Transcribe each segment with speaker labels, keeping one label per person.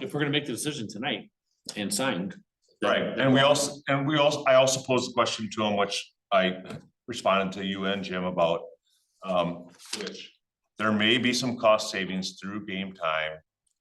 Speaker 1: if we're gonna make the decision tonight and signed. then-
Speaker 2: Right, and we also, and we also, I also posed a question to him, which I responded to you and Jim about. Um, which, there may be some cost savings through game time,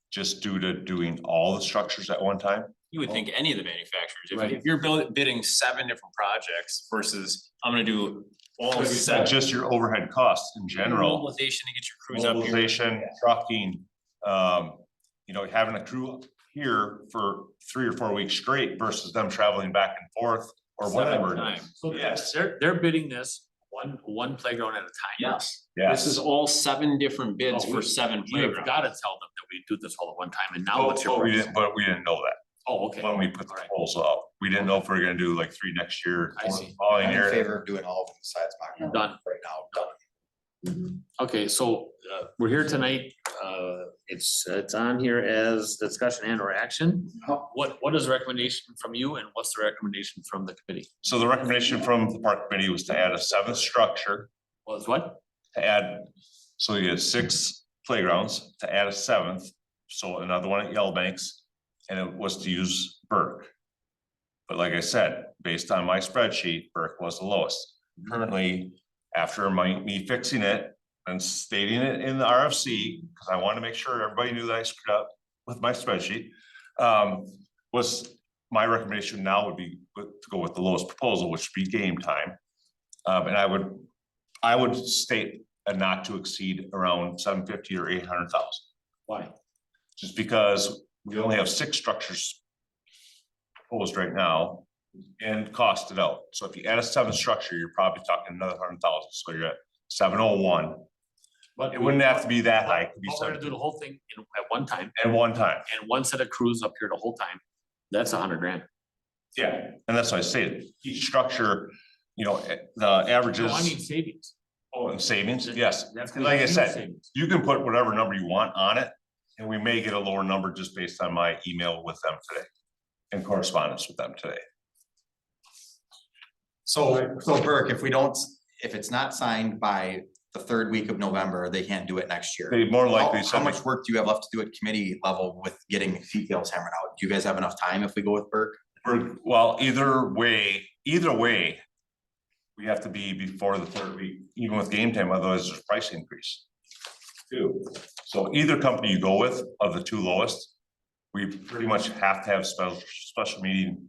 Speaker 2: just due to doing all the structures at one time.
Speaker 3: You would think any of the manufacturers,
Speaker 1: Right.
Speaker 3: if if you're building, bidding seven different projects versus, I'm gonna do all
Speaker 2: Is that
Speaker 3: seven.
Speaker 2: just your overhead costs in general?
Speaker 3: Mobilization to get your crews Mm-hmm. up here.
Speaker 2: Mobilization, trucking, um, you know, having a crew here for three or four weeks straight versus them traveling back and forth or whatever.
Speaker 1: Seven times. So
Speaker 2: Yes.
Speaker 1: They're, they're bidding this one, one playground at a time.
Speaker 3: Yes,
Speaker 2: Yes.
Speaker 3: this is all seven different bids
Speaker 1: Oh,
Speaker 3: for
Speaker 1: we-
Speaker 3: seven
Speaker 1: You've
Speaker 3: playgrounds.
Speaker 1: gotta tell them that we do this all at one time and now
Speaker 2: Oh,
Speaker 1: what's
Speaker 2: but we
Speaker 1: your,
Speaker 2: didn't, but we didn't know that
Speaker 1: oh, okay.
Speaker 2: when we put the
Speaker 1: Alright.
Speaker 2: proposal out. We didn't know if we were gonna do like three next year.
Speaker 1: I
Speaker 2: four
Speaker 1: see.
Speaker 2: Following
Speaker 4: I'm in
Speaker 2: year.
Speaker 4: favor of doing all of them besides Mockingbird
Speaker 1: Done.
Speaker 4: right now, done.
Speaker 1: Okay, so uh, we're here tonight. Uh, It's, it's on here as discussion and or action.
Speaker 2: Uh-huh.
Speaker 1: What, what is the recommendation from you and what's the recommendation from the committee?
Speaker 2: So the recommendation from the park committee was to add a seventh structure,
Speaker 1: Was what?
Speaker 2: to add, so you had six playgrounds, to add a seventh. So another one at Yell Banks, and it was to use Burke. But like I said, based on my spreadsheet, Burke was the lowest. Currently, after my, me fixing it and stating it in the RFC, because I wanted to make sure everybody knew that I screwed up with my spreadsheet. Um, was, my recommendation now would be with- to go with the lowest proposal, which would be game time. Um, and I would, I would state a not to exceed around seven fifty or eight hundred thousand,
Speaker 1: Why?
Speaker 2: just because we only have six structures proposed right now and costed out. So if you add a seventh structure, you're probably talking another hundred thousand, so you're at seven oh one.
Speaker 1: But
Speaker 2: It wouldn't have to be that high, it could be
Speaker 1: We're gonna do
Speaker 2: seven
Speaker 1: the whole thing in- at one time
Speaker 2: at one time.
Speaker 1: and one set of crews up here the whole time. That's a hundred grand.
Speaker 2: Yeah. And that's why I say each structure, you know, eh, the averages.
Speaker 1: No, I mean savings.
Speaker 2: Oh, and savings, yes.
Speaker 1: That's
Speaker 2: And like I
Speaker 1: huge
Speaker 2: said,
Speaker 1: savings.
Speaker 2: You can put whatever number you want on it, and we may get a lower number just based on my email with them today. And correspondence with them today.
Speaker 4: So, so Burke, if we don't, if it's not signed by the third week of November, they can't do it next year.
Speaker 2: They more
Speaker 4: How,
Speaker 2: likely
Speaker 4: how
Speaker 2: said,
Speaker 4: much work do you have left to do at committee level with getting details hammered out? Do you guys have enough time if we go with Burke?
Speaker 2: we're- well, either way, either way. We have to be before the third week, even with game time, otherwise there's price increase. Too. So either company you go with of the two lowest, we pretty much have to have special, special meeting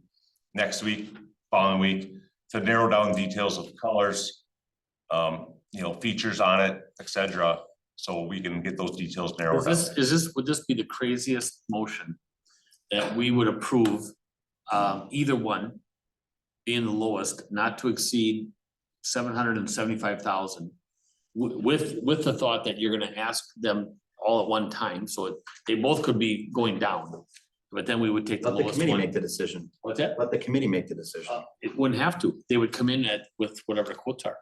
Speaker 2: next week, following week, to narrow down details of colors, um, you know, features on it, et cetera, so we can get those details narrowed
Speaker 1: Is
Speaker 2: down.
Speaker 1: this, is this, would this be the craziest motion that we would approve, um, either one being the lowest, not to exceed seven hundred and seventy-five thousand? With, with, with the thought that you're gonna ask them all at one time, so it- they both could be going down. But then we would take the Uh,
Speaker 4: Let the
Speaker 1: lowest
Speaker 4: committee make
Speaker 1: one.
Speaker 4: the decision.
Speaker 1: What's that?
Speaker 4: Let the committee make the decision.
Speaker 1: It wouldn't have to. They would come in at, with whatever the quotes are.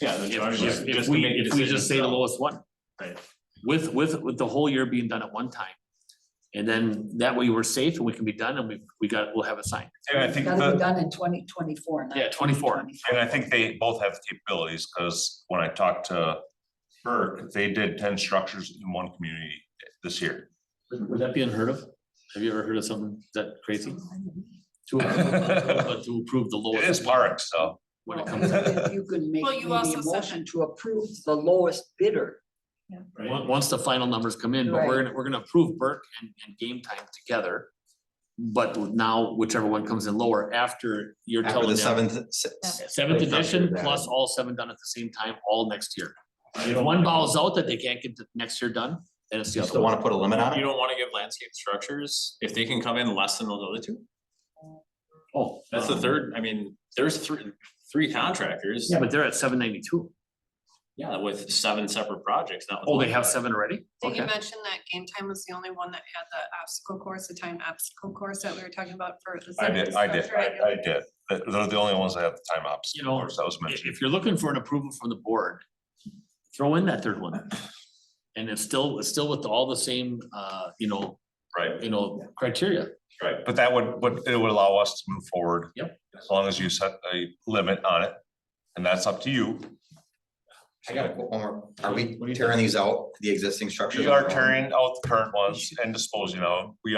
Speaker 3: Yeah. the
Speaker 1: If-
Speaker 3: charge is
Speaker 1: If, if
Speaker 3: just to
Speaker 1: we,
Speaker 3: make a
Speaker 1: if we
Speaker 3: decision.
Speaker 1: just say the lowest one.
Speaker 3: Right.
Speaker 1: With, with, with the whole year being done at one time. And then that way we're safe and we can be done and we, we got, we'll have it signed.
Speaker 2: And I think
Speaker 5: Gotta
Speaker 2: the-
Speaker 5: be done in twenty twenty-four.
Speaker 1: uh, Yeah, 24.
Speaker 2: And I think they both have capabilities, because when I talked to Burke, they did ten structures in one community this year.
Speaker 1: Would that be unheard of? Have you ever heard of something that crazy? To, but to approve the
Speaker 2: It
Speaker 1: lowest.
Speaker 2: is parks, so,
Speaker 1: When it
Speaker 5: Well,
Speaker 1: comes,
Speaker 5: if You can make
Speaker 6: Well, you also
Speaker 5: maybe a
Speaker 6: said-
Speaker 5: motion to approve the lowest bidder.
Speaker 1: on- once the final numbers come in, but we're gonna, we're gonna approve Burke and, and game time together. But now whichever one comes in lower after you're
Speaker 4: After the
Speaker 1: telling them,
Speaker 4: seventh, s- s-
Speaker 1: seventh
Speaker 4: They structured
Speaker 1: edition
Speaker 4: that.
Speaker 1: plus all seven done at the same time, all next year. If one bows out that they can't get the next year done, then it's the
Speaker 4: you
Speaker 1: other
Speaker 4: still
Speaker 1: one.
Speaker 4: wanna put a limit on
Speaker 3: You
Speaker 4: it?
Speaker 3: don't wanna give landscape structures, if they can come in less than those other two,
Speaker 1: Oh,
Speaker 3: that's
Speaker 4: Uh-huh.
Speaker 3: the
Speaker 1: um,
Speaker 3: third, I mean, there's three, three contractors.
Speaker 1: Yeah, but they're at seven ninety-two.
Speaker 3: Yeah, with seven separate projects, not. with
Speaker 1: Oh,
Speaker 3: one
Speaker 1: they have
Speaker 3: project.
Speaker 1: seven already?
Speaker 6: Did you
Speaker 1: Okay.
Speaker 6: mention that game time was the only one that had the obstacle course, the time obstacle course that we were talking about for the.
Speaker 2: I did, I did,
Speaker 6: structure?
Speaker 2: I, I did, They're- they're the only ones that have the time ops,
Speaker 1: You
Speaker 2: of
Speaker 1: know,
Speaker 2: course, that was
Speaker 1: If,
Speaker 2: mentioned.
Speaker 1: if you're looking for an approval from the board, throw in that third one. And it's still, it's still with all the same, uh, you know,
Speaker 2: Right,
Speaker 1: you know, criteria.
Speaker 2: right. But that would, but it would allow us to move forward.
Speaker 1: Yep.
Speaker 2: As long as you set a limit on it, and that's up to you.
Speaker 4: I got it. One more. Are
Speaker 1: What do
Speaker 4: we
Speaker 1: you
Speaker 4: tearing these out, the existing structures?
Speaker 2: We
Speaker 4: on
Speaker 2: are
Speaker 4: their own?
Speaker 2: tearing out the current ones and disposing of them, we